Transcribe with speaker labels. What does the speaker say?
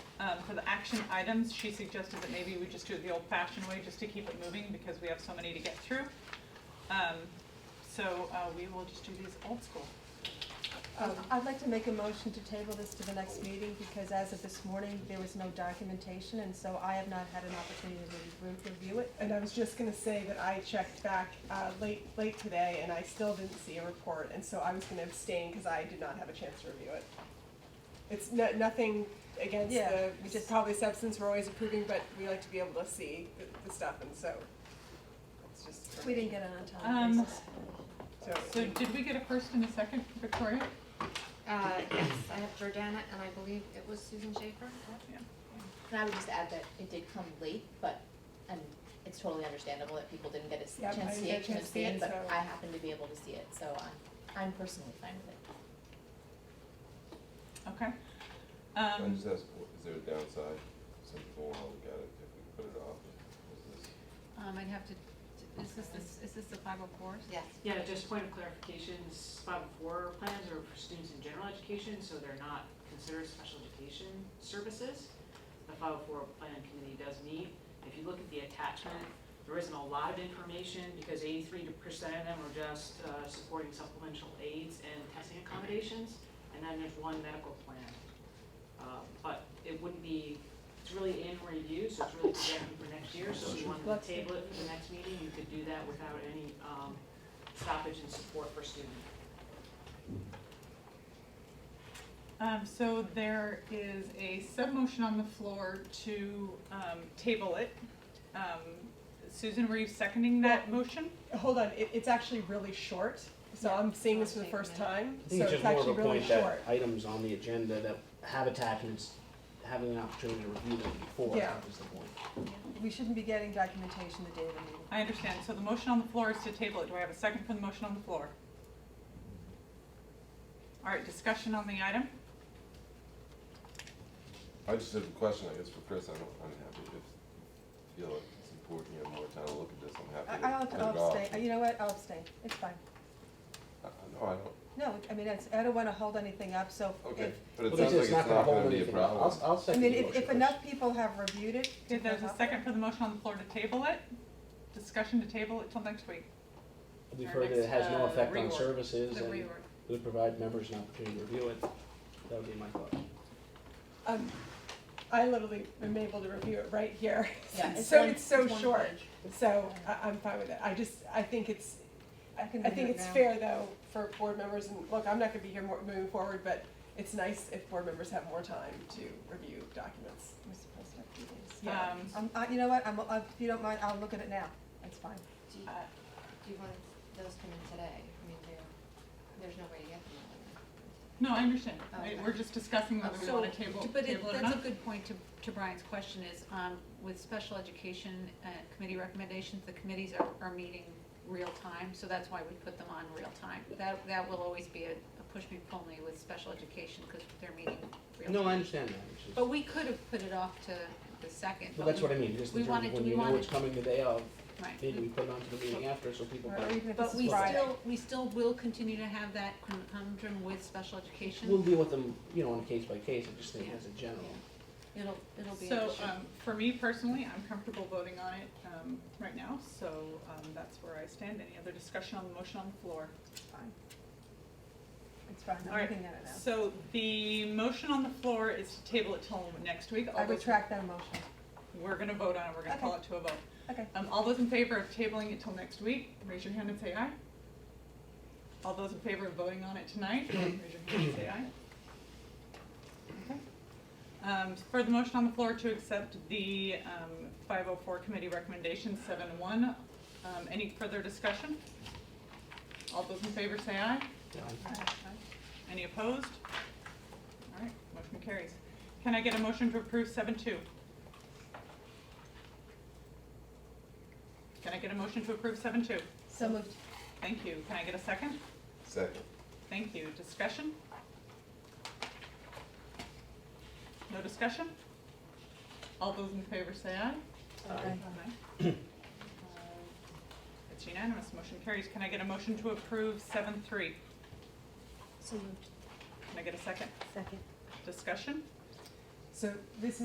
Speaker 1: um, for the action items, she suggested that maybe we just do it the old-fashioned way, just to keep it moving, because we have so many to get through. Um, So uh, we will just do these old school.
Speaker 2: Um, I'd like to make a motion to table this to the next meeting, because as of this morning, there was no documentation, and so I have not had an opportunity to re- review it.
Speaker 3: And I was just gonna say that I checked back uh, late, late today, and I still didn't see a report, and so I was gonna abstain because I did not have a chance to review it. It's no, nothing against
Speaker 2: Yeah,
Speaker 3: the,
Speaker 2: we
Speaker 3: just
Speaker 2: just-
Speaker 3: probably substance we're always approving, but we like to be able to see the, the stuff, and so it's just.
Speaker 2: We didn't get it on time.
Speaker 1: Um,
Speaker 2: basis.
Speaker 3: So,
Speaker 1: So did we get a first and a second, Victoria?
Speaker 4: Uh, yes, I have Jordana, and I believe it was Susan Schaefer.
Speaker 5: And I would just add that it did come late, but, and it's totally understandable that people didn't get a s-
Speaker 3: Yep, I
Speaker 5: chance to
Speaker 3: didn't
Speaker 5: see
Speaker 3: get a
Speaker 5: it, chance to see it, but
Speaker 3: so-
Speaker 5: I happened to be able to see it, so I'm, I'm personally fine with it.
Speaker 1: Okay. Um,
Speaker 6: I just ask, wh- is there a downside? Some people won't look at it if we put it off. Is this-
Speaker 7: Um, I'd have to, is this, the- is this the five oh fours?
Speaker 4: Yes.
Speaker 8: Yeah, just point of clarification, spot four plans are for students in general education, so they're not considered special education services. The five oh four plan committee does meet. If you look at the attachment, there isn't a lot of information because eighty-three percent of them are just uh, supporting supplemental aids and testing accommodations. And then there's one medical plan. Uh, But it wouldn't be, it's really in review, so it's really projected for next year. So if you wanted to table it for the next meeting, you could do that without any um, stoppage and support for student.
Speaker 1: Um, so there is a sub-motion on the floor to, um, table it. Um, Susan, were you seconding that motion?
Speaker 3: hold on, it, it's actually really short, so I'm seeing this for the
Speaker 4: I'll take
Speaker 3: first
Speaker 4: a
Speaker 3: time, so
Speaker 9: I think
Speaker 3: it's
Speaker 9: it's just more of
Speaker 3: actually
Speaker 9: a
Speaker 3: really
Speaker 9: point that
Speaker 3: short.
Speaker 9: items on the agenda that have attachments, having an opportunity to review them before
Speaker 3: Yeah.
Speaker 9: is the point.
Speaker 2: We shouldn't be getting documentation the day of the meeting.
Speaker 1: I understand, so the motion on the floor is to table it, do I have a second for the motion on the floor? All right, discussion on the item,
Speaker 6: I just have a question, I guess, for Chris. I don't, I'm happy if, you feel like it's important, you have more time to look at this, I'm happy
Speaker 2: I- I'll,
Speaker 6: to put it
Speaker 2: I'll
Speaker 6: off.
Speaker 2: abstain, you know what, I'll abstain, it's fine.
Speaker 6: I- I- No, I don't,
Speaker 2: No, I mean, it's, I don't wanna hold anything up, so
Speaker 6: okay,
Speaker 2: if,
Speaker 6: but it
Speaker 9: Well,
Speaker 6: sounds like it's not
Speaker 9: hold
Speaker 6: gonna be a
Speaker 9: anything up.
Speaker 6: problem.
Speaker 9: I'll, I'll
Speaker 2: I
Speaker 9: second the
Speaker 2: mean,
Speaker 9: motion.
Speaker 2: if, if
Speaker 9: Chris.
Speaker 2: enough people have reviewed it.
Speaker 1: Okay, there's a
Speaker 2: I'll-
Speaker 1: second for the motion on the floor to table it, discussion to table it till next week.
Speaker 9: We've
Speaker 7: Our
Speaker 9: heard that
Speaker 7: next,
Speaker 9: it has no
Speaker 7: uh,
Speaker 9: effect on
Speaker 7: reorg.
Speaker 9: services
Speaker 7: The
Speaker 9: and it
Speaker 7: reorg.
Speaker 9: would provide members an opportunity to review it. That would be my thought.
Speaker 3: Um, I literally am able to review it right here.
Speaker 5: Yeah, it's
Speaker 3: So
Speaker 5: one-
Speaker 3: it's so
Speaker 5: it's one
Speaker 3: short,
Speaker 5: page.
Speaker 3: so I, I'm fine with it. I just, I think it's, I
Speaker 2: I can
Speaker 3: I
Speaker 2: do
Speaker 3: think
Speaker 2: it
Speaker 3: it's
Speaker 2: now.
Speaker 3: fair though for board members, and look, I'm not gonna be here more, moving forward, but it's nice if board members have more time to review documents.
Speaker 2: We're supposed to have two days.
Speaker 3: Yeah.
Speaker 1: Um,
Speaker 2: Um, I, you know what, I'm, I, if you don't mind, I'll look at it now, it's fine.
Speaker 4: Do you,
Speaker 1: uh,
Speaker 4: do you want those coming today? I mean, there, there's no way to get them.
Speaker 1: No, I understand, I-
Speaker 4: Okay.
Speaker 1: we're just discussing whether we
Speaker 7: Oh, So,
Speaker 1: wanna table, table
Speaker 7: But
Speaker 1: it
Speaker 7: it,
Speaker 1: or Oh, not.
Speaker 7: that's a good point to, to Brian's question is, um, with special education, uh, committee recommendations, the committees are, are meeting real time, so that's why we put them on real time. That, that will always be a, a push me pull me with special education, cause they're meeting real time.
Speaker 9: No, I understand that, which is-
Speaker 7: But we could have put it off to the second. but
Speaker 9: well, that's
Speaker 7: we-
Speaker 9: what I mean, just
Speaker 7: we
Speaker 9: in terms
Speaker 7: wanted-
Speaker 9: of when
Speaker 7: we
Speaker 9: you know
Speaker 7: wanted-
Speaker 9: it's coming the day of,
Speaker 7: Right.
Speaker 9: maybe we put it onto the meeting after so people.
Speaker 2: Or even if
Speaker 7: But
Speaker 2: it's
Speaker 7: we
Speaker 2: Friday.
Speaker 7: still, we still will continue to have that conundrum with special
Speaker 9: We'll
Speaker 7: education.
Speaker 9: deal with them, you know, on a case by case, I just think
Speaker 7: Yeah.
Speaker 9: as a general.
Speaker 7: It'll, it'll be an
Speaker 1: So,
Speaker 7: issue.
Speaker 1: um, for me personally, I'm comfortable voting on it, um, right now, so, um, that's where I stand. Any other discussion on the motion on the floor?
Speaker 2: It's fine. It's fine,
Speaker 1: All
Speaker 2: I'm
Speaker 1: right.
Speaker 2: looking at it now.
Speaker 1: So the motion on the floor is to table it till next week. All
Speaker 2: I
Speaker 1: those-
Speaker 2: retract that motion.
Speaker 1: We're gonna vote on it, we're gonna call it to a vote.
Speaker 2: Okay,
Speaker 1: Um, all those in favor of tabling it till next week, raise your hand and say aye. All those in favor of voting on it tonight, raise your hand and say aye. Okay. Um, for the motion on the floor to accept the, um, five oh four committee recommendation seven one, um, any further discussion? All those in favor say aye.
Speaker 9: Yeah.
Speaker 1: Any opposed? All right, motion carries. Can I get a motion to approve seven two? Can I get a motion to approve seven two?
Speaker 2: so moved.
Speaker 1: Thank you. Can I get a second?
Speaker 6: Second.
Speaker 1: Thank you. Discussion? No discussion? All those in favor say aye.
Speaker 2: Okay.
Speaker 1: Aye. Uh, It's unanimous. Motion carries. Can I get a motion to approve seven three?
Speaker 5: So moved.
Speaker 1: Can I get a second?
Speaker 2: Second.
Speaker 1: Discussion?
Speaker 3: So this